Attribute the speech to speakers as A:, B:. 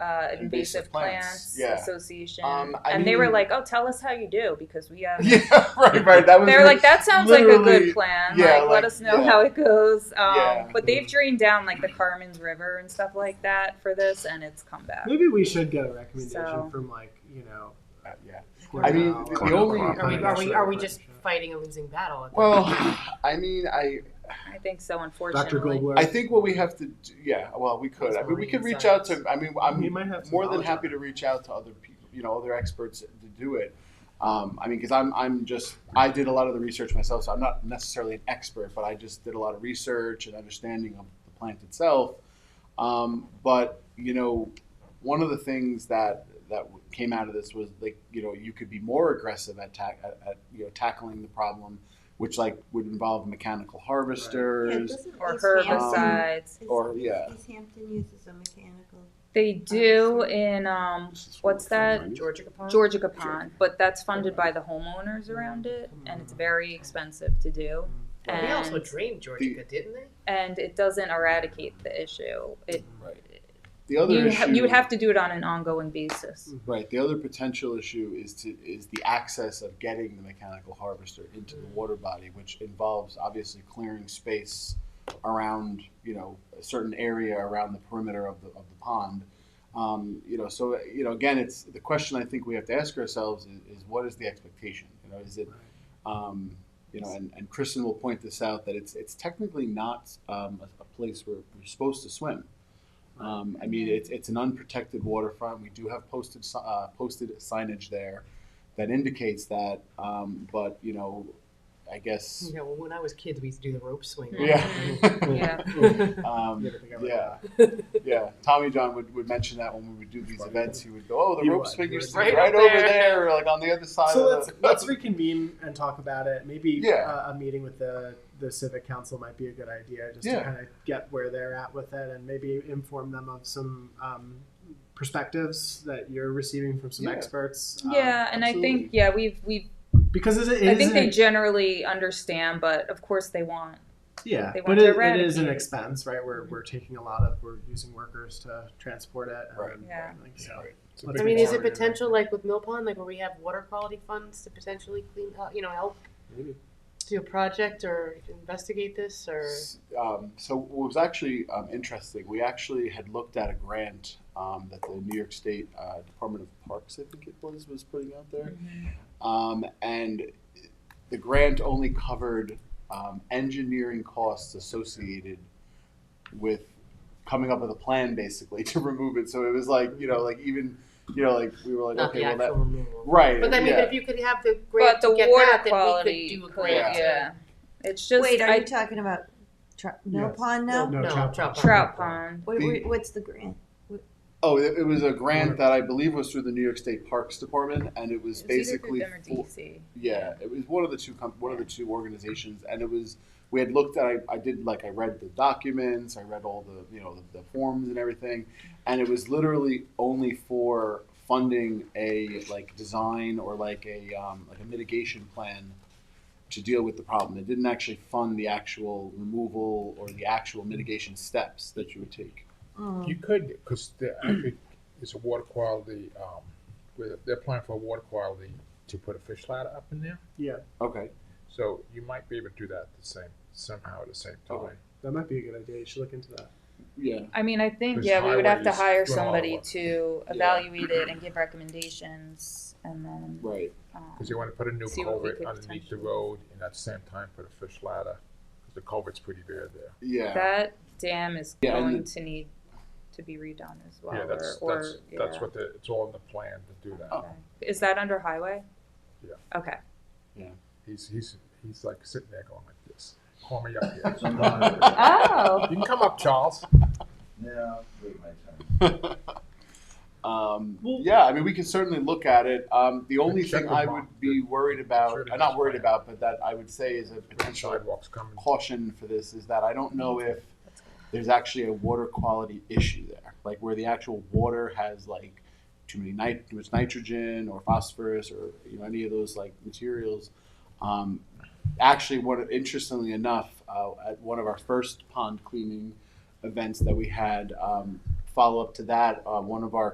A: uh,
B: Invasive
A: invasive plants,
B: Plants, yeah.
A: association,
B: Um, I
A: and they were
B: mean-
A: like, "Oh, tell us how you do," because we have.
B: yeah, right, right. That was
A: They're like, "That sounds like a
B: literally-
A: good plan.
B: yeah,
A: like,
B: like,
A: let us know
B: yeah.
A: how it goes." Um,
B: Yeah.
A: But they've drained down like the Carmen's River and stuff like that for this, and it's come back.
C: Maybe we should get a recommendation
A: So-
C: from like you know.
B: Uh, yeah. I mean,
C: Cornell
B: the only-
C: or- or
D: Are we, are we, are we just fighting a losing battle? At
B: Well, I mean, I
A: I think so. Unfortunately,
C: Dr. Goldberg?
B: I think what we have to, do, yeah. Well, we could. I mean, we could reach out to. I mean, I'm
C: we might have some
B: more than
C: knowledge
B: happy
C: on
B: to reach out to other people, you know, other experts to do it. Um, I mean, because I'm, I'm just, I did a lot of the research myself, so I'm not necessarily an expert, but I just did a lot of research and understanding of the plant itself. Um, but you know, one of the things that that came out of this was like, you know, you could be more aggressive at, tack at, at you know tackling the problem, which like would involve mechanical harvesters.
A: or
B: herbicide.
A: herbicides.
B: or- yeah.
E: East Hampton uses a mechanical.
A: They do in um, what's that?
D: that? Georgia Capone?
A: Georgia Capon, but that's funded by the homeowners around it, and it's very expensive to do.
D: Well, they also
A: And,
D: drained Georgia, didn't they?
A: and it doesn't eradicate the issue. It
B: The other
A: you, ha-
B: issue, Mm-hmm.
A: you would have to do it on an ongoing basis.
B: Right. The other potential issue is to is the access of getting the mechanical harvester into the water body, which involves obviously clearing space around you know a certain area around the perimeter of the of the pond. Um, you know, so you know again, it's the question I think we have to ask ourselves is, is what is the expectation? You know, is it um, you know, and, and Kristen will point this out that it's it's technically not um, a, a place where you're supposed to swim. Um, I mean, it's, it's an unprotected waterfront. We do have posted si- uh, posted signage there that indicates that, um, but you know, I guess
D: You know, when I was kids, we used to do the rope swing.
B: yeah,
A: Yeah.
B: um,
C: You never think I would-
B: yeah, yeah. Tommy John would, would mention that when we would do these events, he would go, "Oh, the
C: He
B: rope
C: would.
B: swing
C: He
B: used
C: would.
B: to be right
D: Right up
B: over
D: there."
B: there, like on the other side."
C: So
B: of
C: let's
B: the,
C: let's reconvene and talk about it. Maybe
B: Yeah.
C: uh, a meeting with the the civic council might be a good idea, just
B: Yeah.
C: to kind of get where they're at with it, and maybe inform them of some um, perspectives that you're receiving from some
B: Yeah.
C: experts. um,
A: Yeah, and I
B: absolutely.
A: think yeah we've we've
C: because it, it
A: I
C: is
A: think they
C: an-
A: generally understand, but of course they want
C: yeah,
A: they
C: but
A: want to
C: it, it is an
A: eradicate.
C: expense, right? We're, we're taking a lot of we're using workers to transport it. and-
B: Right.
A: Yeah.
C: like, so.
B: It's a
C: Let's
B: big
D: I mean, is it
C: forward in
D: potential, like with Mill Pond, like where we have water quality funds to potentially clean, uh, you know, help
C: Maybe.
D: do a project or investigate this or?
B: Um, so what was actually um, interesting, we actually had looked at a grant um, that the New York State uh, Department of Parks, I think it was, was putting out there.
D: Mm-hmm.
B: Um, and the grant only covered um, engineering costs associated with coming up with a plan basically to remove it. So it was like, you know, like even, you know, like we were like,
D: Not
B: okay,
D: the
B: well
D: actual
B: that,
D: removal.
B: right.
D: But I mean,
B: yeah.
D: but if you could have the grant
A: But the
D: to get
A: water
D: that,
A: quality,
D: then we could do a
A: could-
D: grant. to-
A: yeah, it's just
E: Wait, are
A: I,
E: you talking about tro- no
C: Yes.
E: pond now?
C: No,
D: No,
C: trout
D: trout
C: pond.
A: trout pond.
E: What,
B: The-
E: what- what's the grant?
B: Oh, it, it was a grant that I believe was through the New York State Parks Department, and it was
A: It's either through
B: basically
A: them or
B: for-
A: DC.
B: Yeah, it was one of the two com- one of the two organizations, and it was we had looked at. I, I did like I read the documents, I read all the you know the, the forms and everything, and it was literally only for funding a like design or like a um, like a mitigation plan to deal with the problem. It didn't actually fund the actual removal or the actual mitigation steps that you would take.
E: Mm.
F: You could, because I
A: Hmm.
F: think it's a water quality, um, where they're applying for a water quality to put a fish ladder up in there.
C: Yeah,
B: Okay.
F: So you might be able to do that the same, somehow at the same
A: Oh.
F: time.
B: Okay.
C: that might be a good idea. You should look into that.
B: Yeah.
A: I mean, I think
F: There's
A: yeah, we would have to
F: highways
A: hire
F: going all
A: somebody
F: over.
A: to
B: Yeah.
A: evaluate it and give recommendations, and then
B: Right.
A: um,
F: Because you want to put a new
A: See what we
F: culvert
A: could
F: underneath the
A: potentially-
F: road and at the same time put a fish ladder, 'cause the culvert's pretty bare there.
B: Yeah.
A: that dam is
B: Yeah, and
A: going to need to be redone as well.
F: Yeah, that's,
A: or,
F: that's,
A: or,
F: that's
A: yeah.
F: what the, it's all in the plan to do that.
B: Oh.
A: Is that under highway?
F: Yeah.
A: Okay.
F: He's, he's, he's like sitting there going like this, call me up here.
A: Oh.
F: You can come up, Charles.
G: Now, wait my turn.
B: Um, yeah, I mean, we can certainly look at it. Um, the only
F: check
B: thing
F: with
B: I
F: Mark.
B: would be worried
F: Sure
B: about,
F: to
B: uh, not
F: just
B: worried
F: plan.
B: about, but that I would say is a potential
F: Sidewalks coming.
B: caution for this is that I don't know if there's actually a water quality issue there, like where the actual water has like too many nit- too much nitrogen or phosphorus or you know any of those like materials. Um, actually, what interestingly enough, uh, at one of our first pond cleaning events that we had, um, follow up to that, uh, one of our